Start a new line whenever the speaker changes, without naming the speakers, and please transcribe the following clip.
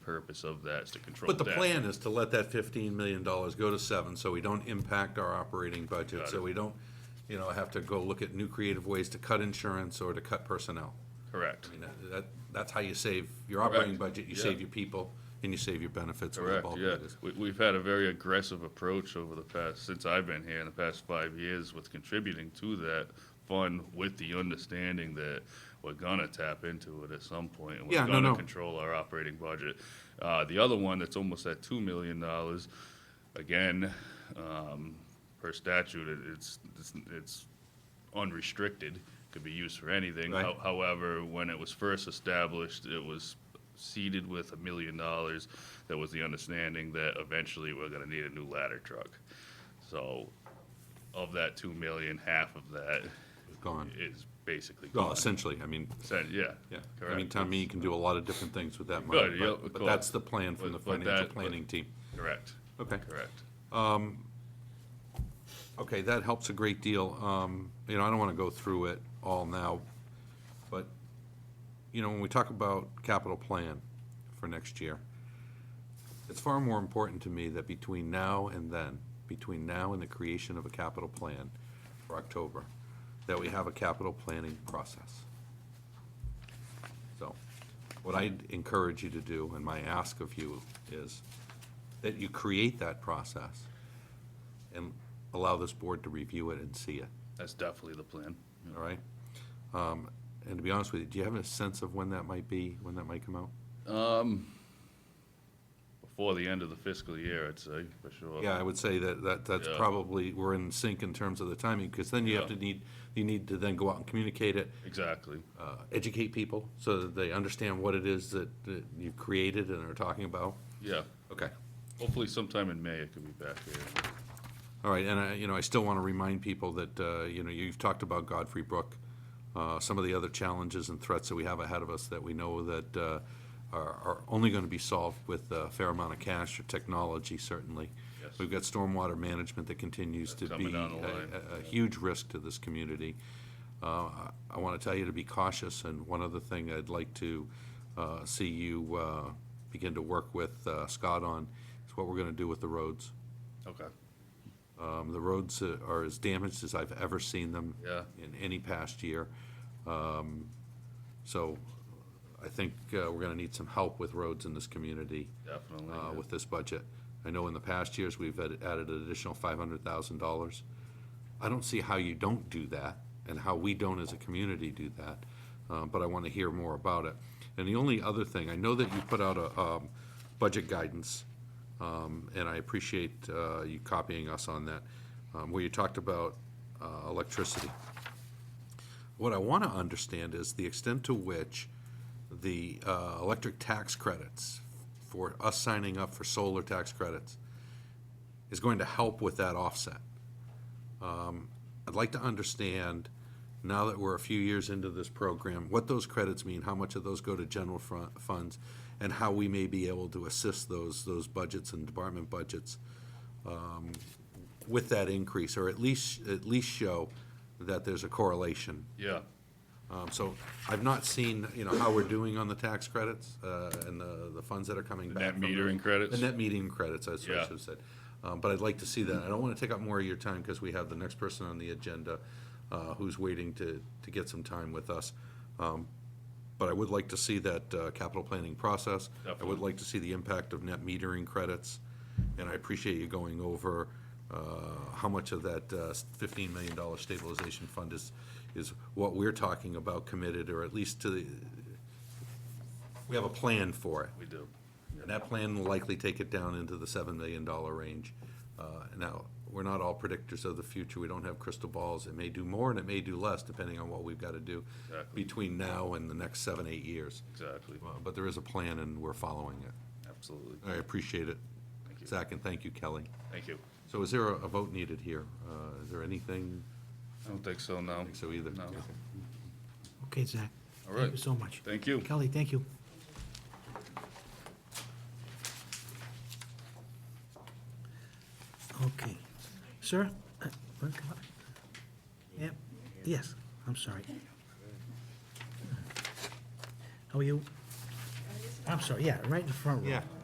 purpose of that is to control
But
that.
the plan is to let that fifteen million dollars go to seven, so we don't impact our operating budget,
Got
so
it.
we don't, you know, have to go look at new creative ways to cut insurance or to cut personnel.
Correct.
I mean, that- that, that's how you save your operating
Correct.
budget, you
Yeah.
save your people, and you save your benefits. where the
Correct,
bulk of
yeah.
it is.
We, we've had a very aggressive approach over the past, since I've been here in the past five years with contributing to that fund with the understanding that we're gonna tap into it at some point and
Yeah,
we're
no,
gonna
no.
control our operating budget. Uh, the other one that's almost at two million dollars, again, um, per statute, it- it's, it's, it's unrestricted, could be used for anything.
Right.
How- However, when it was first established, it was seeded with a million dollars. There was the understanding that eventually we're gonna need a new ladder truck. So of that two million, half of that
Gone.
is basically
Well,
gone.
essentially, I mean,
Said- Yeah.
yeah, I mean,
Correct.
town meeting can do a lot of different things with that
Good,
money,
yeah,
but,
of
but
course.
that's the plan from the
But- but
financial
that- but-
planning team.
Correct.
Okay.
Correct.
Okay, that helps a great deal. Um, You know, I don't want to go through it all now, but, you know, when we talk about capital plan for next year, it's far more important to me that between now and then, between now and the creation of a capital plan for October, that we have a capital planning process. So, what I'd encourage you to do, and my ask of you, is that you create that process and allow this board to review it and see it,
That's definitely the plan.
all right? Um, And to be honest with you, do you have a sense of when that might be, when that might come out?
Before the end of the fiscal year, I'd say, for sure.
Yeah, I would say that, that, that's
Yeah.
probably, we're in sync in terms of the timing, because then you have to
Yeah.
need, you need to then go out and communicate it,
Exactly.
uh, educate people, so that they understand what it is that that you've created and are talking about.
Yeah.
Okay.
Hopefully sometime in May it could be back here.
All right, and I, you know, I still want to remind people that, uh, you know, you've talked about Godfrey Brook, uh, some of the other challenges and threats that we have ahead of us that we know that uh, are are only going to be solved with a fair amount of cash or technology, certainly.
Yes.
We've got stormwater management that continues to
Coming
be
down the
a-
line.
a- a huge risk to this community. Uh, I- I want to tell you to be cautious, and one other thing I'd like to uh, see you uh, begin to work with uh, Scott on is what we're going to do with the roads.
Okay.
Um, The roads uh, are as damaged as I've ever seen them
Yeah.
in any past year. Um, So I think uh, we're going to need some help with roads in this community
Definitely.
uh,
yeah.
with this budget. I know in the past years, we've added added an additional $500,000. I don't see how you don't do that and how we don't as a community do that, uh, but I want to hear more about it. And the only other thing, I know that you put out a um, budget guidance, um, and I appreciate uh, you copying us on that, um, where you talked about uh, electricity. What I want to understand is the extent to which the uh, electric tax credits for us signing up for solar tax credits is going to help with that offset. Um, I'd like to understand, now that we're a few years into this program, what those credits mean, how much of those go to general fro- funds, and how we may be able to assist those, those budgets and department budgets um, with that increase, or at least, at least show that there's a correlation
Yeah.
um, So I've not seen, you know, how we're doing on the tax credits uh, and the, the funds that are coming
The
back.
net
from the-
metering credits?
The net metering credits, that's what I
Yeah.
should have said. Um, But I'd like to see that. I don't want to take up more of your time because we have the next person on the agenda uh, who's waiting to, to get some time with us. Um, But I would like to see that uh, capital planning process. I would
Definitely.
like to see the impact of net metering credits. And I appreciate you going over uh, how much of that uh, $15 million stabilization fund is, is what we're talking about committed, or at least to, the we have a plan for it.
We do.
And that plan will likely take it down into the $7 million range. Uh, Now, we're not all predictors of the future. We don't have crystal balls. It may do more and it may do less, depending on what we've got to do
Exactly.
between now and the next seven, eight years.
Exactly.
Uh, But there is a plan and we're following it.
Absolutely.
I appreciate it.
Thank you.
Zach, and thank you, Kelly.
Thank you.
So is there a a vote needed here? Uh, Is there anything?
I don't think so, no.
I think so either.
No.
Okay.
Okay, Zach.
All
Thank
right.
you so much.
Thank you.
Kelly, thank you. Okay. Sir? uh, wanna come up? Yep, yes, I'm sorry. How are you? I'm sorry, yeah, right in the front row.
Yeah.